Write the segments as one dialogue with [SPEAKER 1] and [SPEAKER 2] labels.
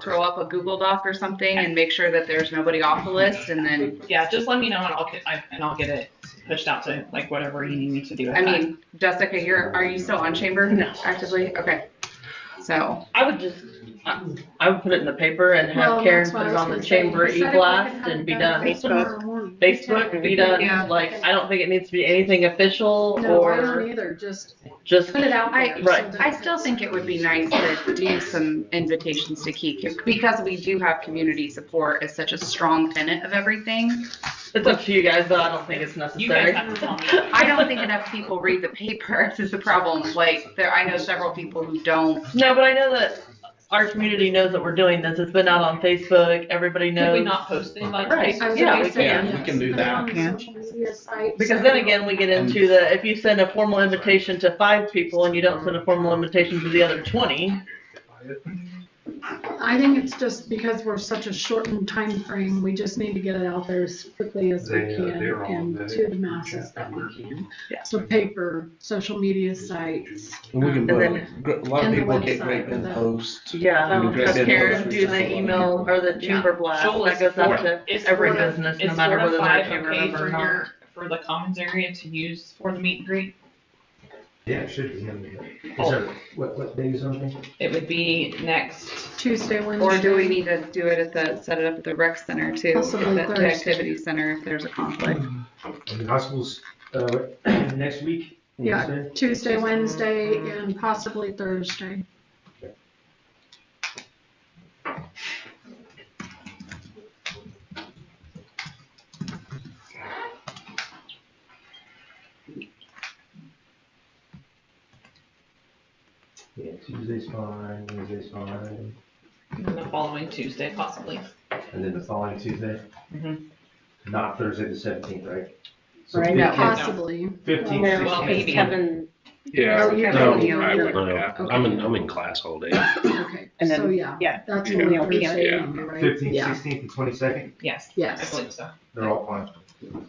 [SPEAKER 1] throw up a Google Doc or something and make sure that there's nobody off the list and then,
[SPEAKER 2] Yeah, just let me know and I'll get, I- and I'll get it pushed out to like whatever you need me to do. at
[SPEAKER 1] I
[SPEAKER 2] that.
[SPEAKER 1] mean, Jessica, you're, are you still on chamber?
[SPEAKER 3] No.
[SPEAKER 1] Actively? Okay. So,
[SPEAKER 3] I would just, I I would put it in the paper and
[SPEAKER 4] Well,
[SPEAKER 3] have Karen
[SPEAKER 4] that's
[SPEAKER 3] put
[SPEAKER 4] what I
[SPEAKER 3] it
[SPEAKER 4] was
[SPEAKER 3] on the
[SPEAKER 4] gonna say.
[SPEAKER 3] chamber
[SPEAKER 4] Decided we could
[SPEAKER 3] e-blast
[SPEAKER 4] have
[SPEAKER 3] and be
[SPEAKER 4] it
[SPEAKER 3] done.
[SPEAKER 4] done
[SPEAKER 3] Facebook.
[SPEAKER 4] Facebook.
[SPEAKER 3] Facebook, be
[SPEAKER 1] Yeah.
[SPEAKER 3] done, like, I don't think it needs to be anything official
[SPEAKER 4] No, I
[SPEAKER 3] or
[SPEAKER 4] don't either, just
[SPEAKER 3] just,
[SPEAKER 4] put it out
[SPEAKER 1] I-
[SPEAKER 4] there.
[SPEAKER 3] Right.
[SPEAKER 1] I still think it would be nice to do some invitations to Keek because we do have community support as such a strong tenet of everything.
[SPEAKER 3] it's up to you guys, but I don't think it's
[SPEAKER 2] You guys
[SPEAKER 3] necessary.
[SPEAKER 2] have to tell me.
[SPEAKER 1] I don't think enough people read the paper. This is the problem. Like, there, I know several people who don't.
[SPEAKER 3] No, but I know that our community knows that we're doing this, it's been out on Facebook, everybody
[SPEAKER 2] Could we
[SPEAKER 3] knows.
[SPEAKER 2] not post the invite?
[SPEAKER 3] Right,
[SPEAKER 4] I was
[SPEAKER 3] yeah,
[SPEAKER 4] gonna
[SPEAKER 3] we
[SPEAKER 4] say,
[SPEAKER 3] can.
[SPEAKER 5] We can do
[SPEAKER 4] Put it
[SPEAKER 5] that.
[SPEAKER 4] on the
[SPEAKER 1] Yeah.
[SPEAKER 4] social media site,
[SPEAKER 3] Because
[SPEAKER 4] so-
[SPEAKER 3] then again, we get into the, if you send a formal invitation to five people and you don't send a formal invitation to the other twenty,
[SPEAKER 4] I think it's just because we're such a shortened time frame. we just need to get it out there as quickly as we
[SPEAKER 6] They, uh,
[SPEAKER 4] can
[SPEAKER 6] they're all
[SPEAKER 4] and
[SPEAKER 6] there.
[SPEAKER 4] to the masses that we can.
[SPEAKER 3] Yeah.
[SPEAKER 4] So paper, social media sites.
[SPEAKER 6] We can
[SPEAKER 3] And
[SPEAKER 6] put,
[SPEAKER 3] then-
[SPEAKER 6] gr- a lot of
[SPEAKER 4] and the
[SPEAKER 6] people get great
[SPEAKER 4] website
[SPEAKER 6] in
[SPEAKER 4] with it.
[SPEAKER 6] posts.
[SPEAKER 3] yeah.
[SPEAKER 6] Um,
[SPEAKER 3] Oh, Because Karen, do the email or the chamber blast, that goes out to
[SPEAKER 2] It's
[SPEAKER 3] every
[SPEAKER 2] four to-
[SPEAKER 3] business, no
[SPEAKER 2] it's
[SPEAKER 3] matter
[SPEAKER 2] four to
[SPEAKER 3] whether they're a
[SPEAKER 2] five,
[SPEAKER 3] chamber
[SPEAKER 2] okay,
[SPEAKER 3] member or
[SPEAKER 2] for
[SPEAKER 3] not.
[SPEAKER 2] your- For the commons area to use for the meet and greet,
[SPEAKER 7] Yeah, it should be. I mean,
[SPEAKER 2] Oh.
[SPEAKER 7] Is there, what, what day is on there?
[SPEAKER 2] it would be next,
[SPEAKER 4] Tuesday, Wednesday.
[SPEAKER 1] Or do we need to do it at the, set it up at the rec center too?
[SPEAKER 4] Possibly
[SPEAKER 1] The- The
[SPEAKER 4] Thursday.
[SPEAKER 1] activity center if there's a conflict.
[SPEAKER 7] I mean, high school's, uh, next week?
[SPEAKER 4] Yeah.
[SPEAKER 7] Wednesday?
[SPEAKER 4] Tuesday, Wednesday, and possibly Thursday.
[SPEAKER 7] Yeah, Tuesday's fine, Wednesday's fine,
[SPEAKER 2] and the following Tuesday possibly.
[SPEAKER 7] and then the following Tuesday?
[SPEAKER 2] Mhm.
[SPEAKER 4] Mm-hmm.
[SPEAKER 7] Not Thursday the seventeenth, right?
[SPEAKER 1] Right, no.
[SPEAKER 4] Possibly.
[SPEAKER 7] Fifteenth,
[SPEAKER 2] There will be.
[SPEAKER 7] sixteenth.
[SPEAKER 1] Oh,
[SPEAKER 8] Yeah,
[SPEAKER 1] you're
[SPEAKER 5] No,
[SPEAKER 1] on your
[SPEAKER 5] I
[SPEAKER 1] own.
[SPEAKER 5] wouldn't, yeah.
[SPEAKER 4] Okay.
[SPEAKER 5] I'm in, I'm in class all day.
[SPEAKER 4] Okay,
[SPEAKER 3] And
[SPEAKER 4] so
[SPEAKER 3] then-
[SPEAKER 4] yeah,
[SPEAKER 8] yeah,
[SPEAKER 4] that's
[SPEAKER 5] yeah.
[SPEAKER 4] only
[SPEAKER 8] Yeah.
[SPEAKER 4] Thursday,
[SPEAKER 5] Yeah.
[SPEAKER 4] only, right?
[SPEAKER 7] Fifteenth,
[SPEAKER 4] Yeah.
[SPEAKER 7] sixteenth, and twenty-second,
[SPEAKER 2] Yes, I
[SPEAKER 4] Yes.
[SPEAKER 2] believe so.
[SPEAKER 7] they're all fine.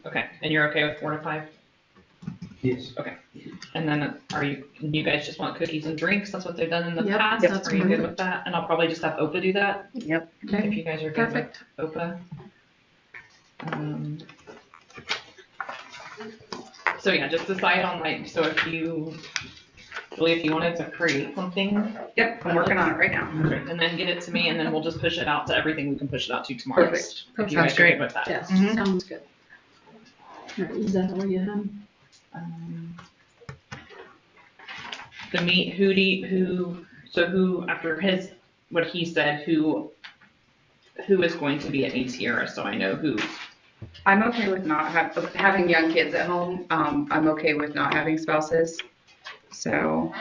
[SPEAKER 2] Okay, and you're okay with four to five?
[SPEAKER 7] Yes.
[SPEAKER 2] And then are you, you guys just want cookies and drinks? That's what they've done in the
[SPEAKER 4] Yep,
[SPEAKER 2] past.
[SPEAKER 4] that's
[SPEAKER 2] Are you good
[SPEAKER 4] perfect.
[SPEAKER 2] with that? And I'll probably just have Opa do that
[SPEAKER 4] Okay,
[SPEAKER 2] if you guys are good with
[SPEAKER 4] perfect.
[SPEAKER 2] Opa. Um, So yeah, just decide on like, so if you, Julie, if you wanted to create something,
[SPEAKER 1] Yep, I'm working on it right now.
[SPEAKER 2] and then get it to me, and then we'll just push it out to everything we can push it out to tomorrow.
[SPEAKER 1] Perfect.
[SPEAKER 2] If you
[SPEAKER 1] Sounds
[SPEAKER 2] guys are
[SPEAKER 1] great.
[SPEAKER 2] good with that.
[SPEAKER 4] Yes,
[SPEAKER 1] Mhm.
[SPEAKER 4] sounds good. All right, Is that all you have?
[SPEAKER 2] Um, The meet, who do, you- who, so who, after his, what he said, who, who is going to be at ATR, so I know who.
[SPEAKER 1] I'm okay with not have, having young kids at home. Um, I'm okay with not having spouses. So.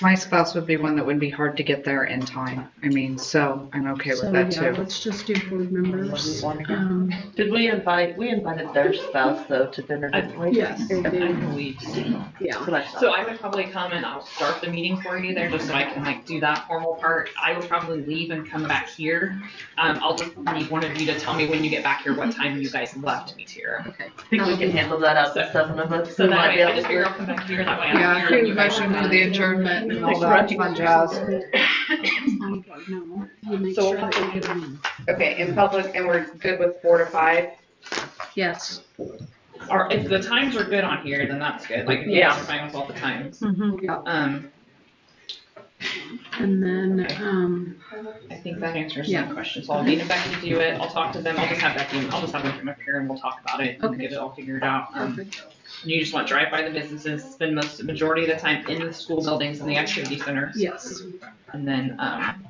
[SPEAKER 8] My spouse would be one that would be hard to get there in time. I mean, so I'm okay
[SPEAKER 4] So
[SPEAKER 8] with
[SPEAKER 4] yeah,
[SPEAKER 8] that too.
[SPEAKER 4] Let's just do board members. Um,
[SPEAKER 3] Did we invite, we invited their spouse though to dinner, didn't we?
[SPEAKER 4] Yes,
[SPEAKER 2] I
[SPEAKER 4] they do,
[SPEAKER 2] believe.
[SPEAKER 4] yeah.
[SPEAKER 3] That's what I thought.
[SPEAKER 2] So I would probably come and I'll start the meeting for you there, just so I can like do that formal part. I will probably leave and come back here. Um, I'll just need one of you to tell me when you get back here, what time you guys left meet here.
[SPEAKER 3] I think we can handle that out to seven of us.
[SPEAKER 2] So
[SPEAKER 3] We
[SPEAKER 2] that
[SPEAKER 3] might be
[SPEAKER 2] way, I
[SPEAKER 3] able
[SPEAKER 2] just
[SPEAKER 3] to-
[SPEAKER 2] figure I'll come back here, that way I'm here.
[SPEAKER 8] Yeah, I
[SPEAKER 2] and
[SPEAKER 8] think
[SPEAKER 2] you
[SPEAKER 8] we
[SPEAKER 2] guys
[SPEAKER 8] should
[SPEAKER 2] are
[SPEAKER 8] move
[SPEAKER 2] done.
[SPEAKER 8] the adjournment and all that fun jazz.
[SPEAKER 4] No, you make
[SPEAKER 2] So
[SPEAKER 4] sure that you get them in.
[SPEAKER 1] Okay, in public, and we're good with four to five?
[SPEAKER 4] Yes.
[SPEAKER 2] Or if the times are good on here, then that's good, like, yeah,
[SPEAKER 3] Yeah.
[SPEAKER 2] fine with all the times.
[SPEAKER 4] Yeah,
[SPEAKER 2] Um,
[SPEAKER 4] and then, um,
[SPEAKER 2] I think that answers
[SPEAKER 4] Yeah.
[SPEAKER 2] that question, so I'll need Becky to do it, I'll talk to them, I'll just have Becky, I'll just have them come up here and we'll talk about it and
[SPEAKER 4] Okay.
[SPEAKER 2] get it all figured out. Um,
[SPEAKER 4] perfect.
[SPEAKER 2] you just want to drive by the businesses, spend most, majority of the time in the school buildings and the activity centers,
[SPEAKER 4] Yes,
[SPEAKER 2] and then, um,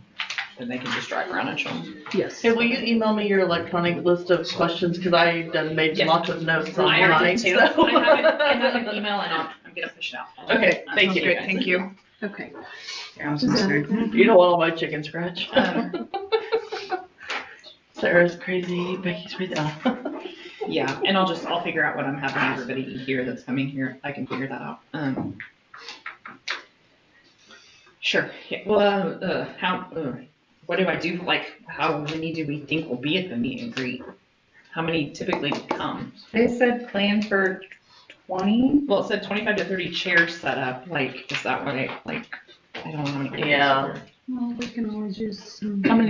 [SPEAKER 2] then they can just drive around and show them.
[SPEAKER 4] yes.
[SPEAKER 3] Hey, will you email me your electronic list of questions, because I done made
[SPEAKER 2] Yes.
[SPEAKER 3] lots of notes
[SPEAKER 2] I
[SPEAKER 3] on
[SPEAKER 2] already
[SPEAKER 3] mine,
[SPEAKER 2] do.
[SPEAKER 3] so.
[SPEAKER 2] I have it, I have an email and I'll, I'm gonna push it out.
[SPEAKER 3] Okay,
[SPEAKER 2] Um,
[SPEAKER 3] thank you.
[SPEAKER 2] guys.
[SPEAKER 8] Thank you.
[SPEAKER 4] Okay.
[SPEAKER 8] Yeah, I was gonna say.
[SPEAKER 3] You don't want all my chicken scratch.
[SPEAKER 2] Um,
[SPEAKER 3] Sarah's crazy, Becky's crazy.
[SPEAKER 2] Yeah, and I'll just, I'll figure out what I'm having everybody eat here that's coming here. I can figure that out. Um. Sure, yeah, well, uh, uh, how, uh, what do I do, like, how many do we think will be at the meet and greet? How many typically come?
[SPEAKER 1] They said plan for twenty?
[SPEAKER 2] Well, it said twenty-five to thirty chairs set up, like, is that what I, like, I don't know. how many people
[SPEAKER 3] Yeah.
[SPEAKER 2] are there.
[SPEAKER 9] Well, we can always use some.
[SPEAKER 4] How many